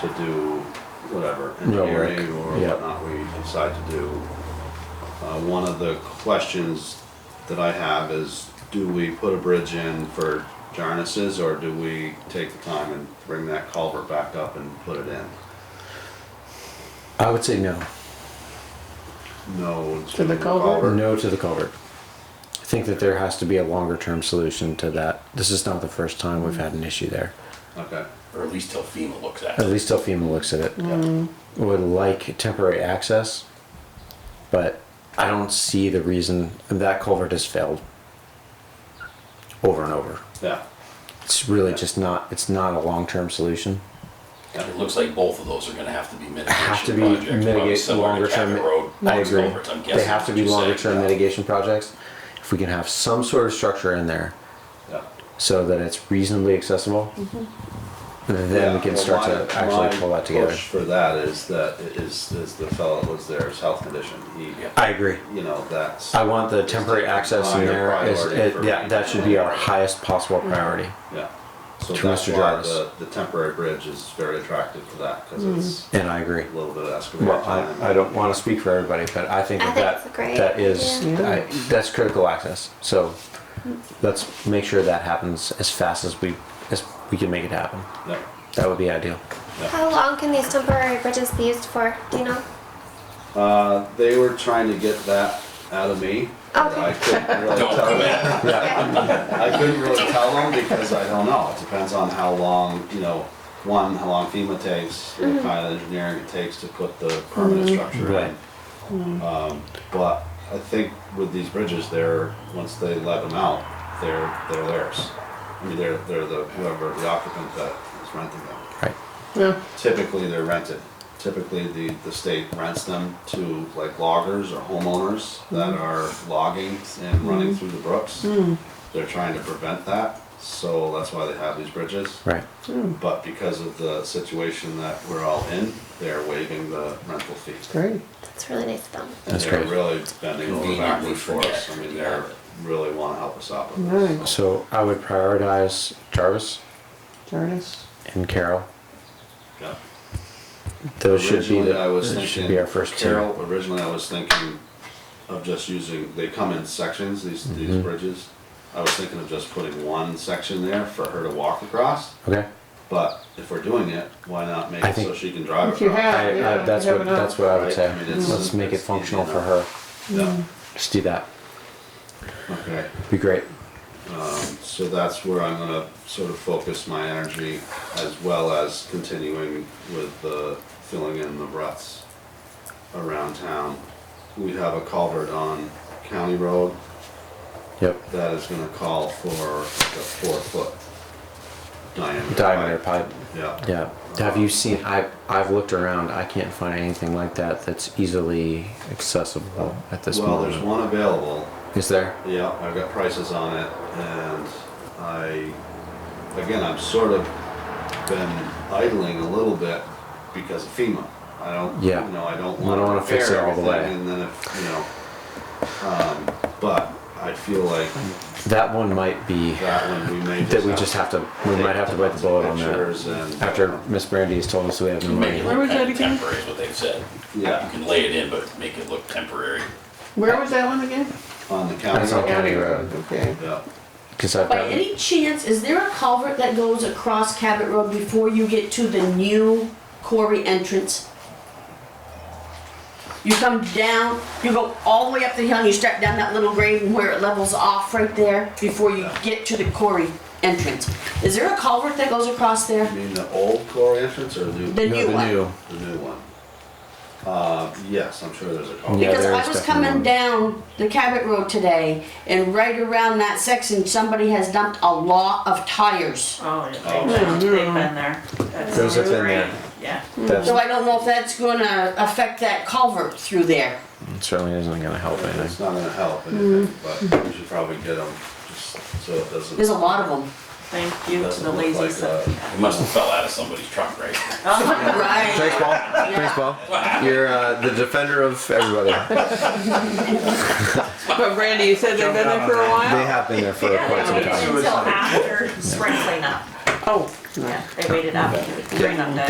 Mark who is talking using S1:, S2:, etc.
S1: to do whatever,
S2: Real work,
S1: engineering or
S2: yeah.
S1: whatnot we decide to do. Uh, one of the questions that I have is, do we put a bridge in for Jarnis's or do we take the time and bring that culvert back up and put it in?
S2: I would say no.
S1: No.
S3: To the culvert?
S2: No to the culvert. I think that there has to be a longer term solution to that. This is not the first time we've had an issue there.
S1: Okay,
S4: or at least till FEMA looks at
S2: At
S4: it.
S2: least till FEMA looks at it. Mm-hmm.
S1: yeah,
S2: Would like temporary access, but I don't see the reason that culvert has failed over and over.
S1: yeah,
S2: It's really just not, it's not a long term solution.
S4: It looks like both of those are gonna have to be mitigation
S2: Have to be
S4: projects, probably
S2: mitigate
S4: similar to
S2: longer term.
S4: Cabot Road,
S2: I
S4: Lots of
S2: agree.
S4: culverts, I'm guessing
S2: They have to
S4: is
S2: be
S4: what you're
S2: longer
S4: saying.
S2: term mitigation projects. If we can have some sort of structure in there
S1: yeah.
S2: so that it's reasonably accessible, then we
S1: Mm-hmm. Yeah,
S2: can
S1: well,
S2: start
S1: my-
S2: to actually
S1: my
S2: pull that together.
S1: push For that is that, is, is the fellow that was there's health condition, he,
S4: Yeah.
S2: I agree.
S1: you know, that's.
S2: I want the temporary access in
S1: Higher
S2: there is,
S1: priority
S2: it-
S1: for
S2: yeah,
S1: me.
S2: that should be our highest possible priority.
S1: Yeah. So
S2: To
S1: that's
S2: Mr.
S1: why
S2: Jarvis.
S1: the, the temporary bridge is very attractive for that, because it's
S2: And I agree.
S1: a little bit of excavator
S2: Well,
S1: time.
S2: I, I don't wanna speak for everybody, but I think
S5: I
S2: that
S5: think
S2: that,
S5: it's a great
S2: that is,
S3: idea.
S2: I- that's critical access. So let's make sure that happens as fast as we, as we can make it happen.
S1: Yeah,
S2: That would be ideal.
S1: yeah.
S5: How long can these temporary bridges be used for? Do you know?
S1: Uh, they were trying to get that out of me. and I
S5: Okay.
S1: couldn't really
S4: Don't
S1: tell
S4: commit.
S1: them.
S5: Okay.
S1: I couldn't really tell them because I don't know. It depends on how long, you know, one, how long FEMA takes, what kind of engineering it takes to put the permanent structure in. Um, but I think with these bridges, they're, once they let them out, they're, they're theirs. I mean, they're, they're the, whoever, the occupant that is renting them.
S2: Right.
S3: Yeah.
S1: Typically, they're rented. Typically, the, the state rents them to like loggers or homeowners that
S2: Mm-hmm.
S1: are logging and running through the brooks. They're trying to prevent that, so that's why they have these bridges.
S2: Right.
S1: But because of the situation that we're all in, they're waiving the rental fee.
S3: Great.
S5: That's really nice of them.
S1: And
S2: That's
S1: they're
S2: great.
S1: really bending over
S4: Convenient, we
S1: backwards for us. I
S4: forget.
S1: mean, they're, really wanna help us out with
S3: Right.
S1: this. so.
S2: So I would prioritize Jarvis
S3: Jarvis.
S2: and Carol.
S1: Yeah.
S2: Those should be,
S1: Originally, I
S2: the-
S1: was
S2: those should
S1: thinking-
S2: be our first two.
S1: Carol, originally I was thinking of just using, they come in sections, these,
S2: Mm-hmm.
S1: these bridges. I was thinking of just putting one section there for her to walk across,
S2: Okay?
S1: but if we're doing it, why not make
S2: I
S1: it so
S2: think-
S1: she can drive
S3: If you
S1: across?
S2: I,
S3: Yeah,
S2: I, that's
S3: you have
S2: what,
S3: enough.
S2: that's what I would
S1: Right,
S2: say.
S1: I mean, it's-
S2: Let's make it
S1: it's easy
S2: functional for her.
S1: enough. Yeah,
S2: Just do that.
S3: mm.
S1: okay.
S2: Be great.
S1: So that's where I'm gonna sort of focus my energy as well as continuing with the filling in the ruts around town. We have a culvert on County Road
S2: Yep.
S1: that is gonna call for the four foot diameter.
S2: Diameter pipe.
S1: Yeah.
S2: Yeah. Have you seen? I I've looked around. I can't find anything like that that's easily accessible at this
S1: Well,
S2: moment.
S1: there's one available,
S2: Is there?
S1: yeah, I've got prices on it, and I, again, I'm sort of been idling a little bit because of FEMA. I don't, you
S2: Yeah.
S1: know, I don't
S2: We
S1: want
S2: don't
S1: to
S2: wanna fix
S1: repair
S2: it all the way.
S1: everything, and then if, you know, um, but I feel like
S2: That one might be
S1: that one we may just
S2: that we just have to. We might have to bite the bullet on that.
S1: Pictures and.
S2: After Miss Brandy has told us we have no
S4: Make it
S2: money.
S3: Where was
S4: look kind
S3: that
S4: of
S3: again?
S4: temporary is what they've said. You
S1: Yeah,
S4: can lay it in, but make it look temporary.
S3: Where was that one again?
S1: on the
S2: That's on
S1: county,
S2: County Road
S3: Okay.
S1: yeah.
S2: because I've
S6: By
S2: got.
S6: any chance, is there a culvert that goes across Cabot Road before you get to the new quarry entrance? You come down, you go all the way up the hill and you start down that little grade and where it levels off right there before you get to the quarry entrance. Is there a culvert that goes across
S1: You
S6: there?
S1: mean the old core entrance or the new?
S6: The
S2: No,
S6: new
S2: the
S6: one?
S2: new.
S1: The new one. Uh, yes, I'm sure there's a call.
S2: Yeah,
S6: Because
S2: there
S6: I
S2: is
S6: was
S2: definitely one.
S6: coming down the Cabot Road today and right around that section, somebody has dumped a lot of tires.
S7: Oh,
S1: Oh.
S7: yeah, they've, they've been there. That's
S2: Those have been
S7: great.
S2: there.
S7: Yeah.
S2: That's,
S6: So I don't know if that's gonna affect that culvert through there.
S2: it certainly isn't going to help
S1: It's
S2: anything.
S1: not gonna help anything, but we should probably get them, just so it doesn't.
S6: There's a lot of them.
S7: Thank you to
S1: doesn't
S7: the
S1: look
S7: lazy Oh,
S1: like uh,
S7: stuff.
S1: a-
S4: It must have fell out of somebody's truck, right?
S6: Right.
S2: Thanks, Paul. Thanks, Paul. You're uh, the defender of everybody.
S3: But Randy, you said they've been there for a
S2: They
S3: while?
S2: have been there for quite some time.
S7: Until after spring cleanup.
S3: Oh,
S7: Yeah, they waited after spring cleanup day.